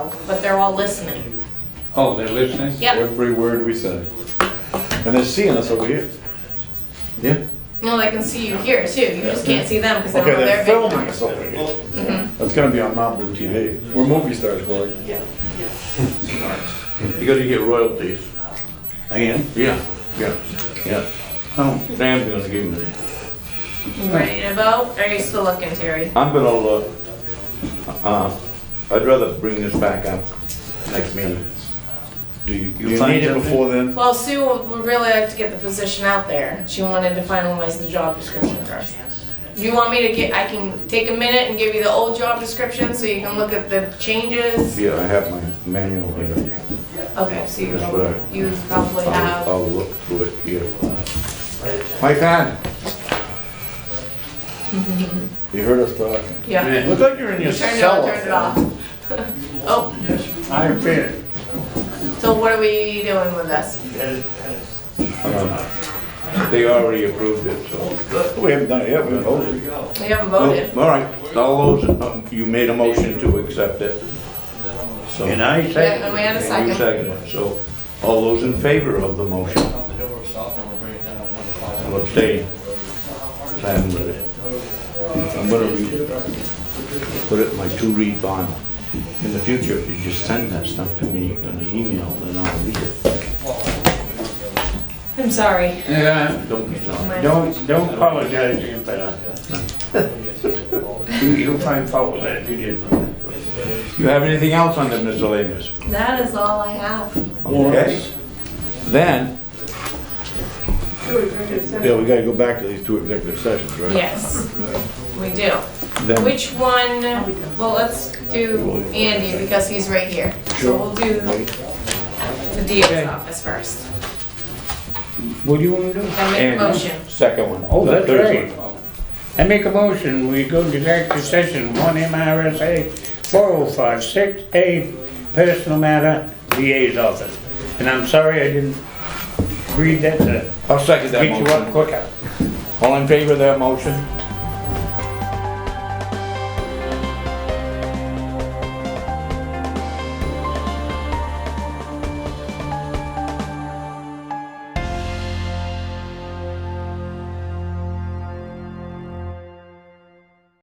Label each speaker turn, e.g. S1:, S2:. S1: but they're all listening.
S2: Oh, they're listening?
S1: Yep,
S3: Every word we say. And they're seeing us over here. Yeah?
S1: no, they can see you here too, you just can't see them because they don't
S3: Okay,
S1: have
S3: they're
S1: their big Mm-hmm.
S3: filming
S1: one.
S3: us over here. That's gonna be on Malibu TV. We're movie stars, Blake.
S4: You gotta get royalties.
S3: I am?
S4: Yeah, yeah.
S3: Yeah.
S2: Oh,
S4: Sam's gonna give me.
S1: You Ready to vote, are you still looking, Terry?
S4: I'm gonna look, uh, I'd rather bring this back up next meeting.
S2: do you?
S3: You
S2: find
S3: need it
S2: something?
S3: before then?
S1: Well, Sue would really like to get the position out there, she wanted to finalize the job description first. You want me to get, I can take a minute and give you the old job description so you can look at the changes?
S4: Yeah, I have my manual here.
S1: Okay, so you,
S4: That's what I-
S1: you probably
S4: I'll,
S1: have,
S4: I'll look through it here. My God,
S3: You heard us talking.
S1: yeah.
S3: Look like you're in your
S1: You turned it on,
S3: cell.
S1: turned it off. Oh,
S3: I am it.
S1: so what are we doing with this?
S4: um, they already approved it, so.
S3: We haven't done it yet, we voted.
S1: We haven't voted.
S4: All right, all those, um, you made a motion to accept it. So,
S2: And I
S1: Yeah,
S2: say,
S1: and we had a
S4: and you
S1: second.
S4: second it, so all those in favor of the motion? I'll abstain. Sam read it. I'm gonna read it. Put it in my two-read file. In the future, if you just send that stuff to me on the email, then I'll read it.
S1: I'm sorry.
S2: yeah,
S4: Don't be sorry.
S2: don't, don't apologize to him, but you'll find fault with that, you did.
S4: You have anything else on the miscellaneous?
S1: That is all I have.
S4: Okay. Then,
S3: Yeah, we gotta go back to these two executive sessions, right?
S1: Yes, we do.
S4: then,
S1: Which one, well, let's do Andy because he's right here. So we'll do the DA's office first.
S2: What do you want to do?
S1: I make a
S4: Andy.
S1: motion.
S4: second one.
S2: Oh,
S4: the
S2: that's
S4: third
S2: right.
S4: one.
S2: I make a motion, we go to executive session, one MRSA four oh five six A, personal matter, VA's office. And I'm sorry I didn't read that to
S4: I'll second that
S2: get you up
S4: motion.
S2: quicker.
S4: All in favor of that motion?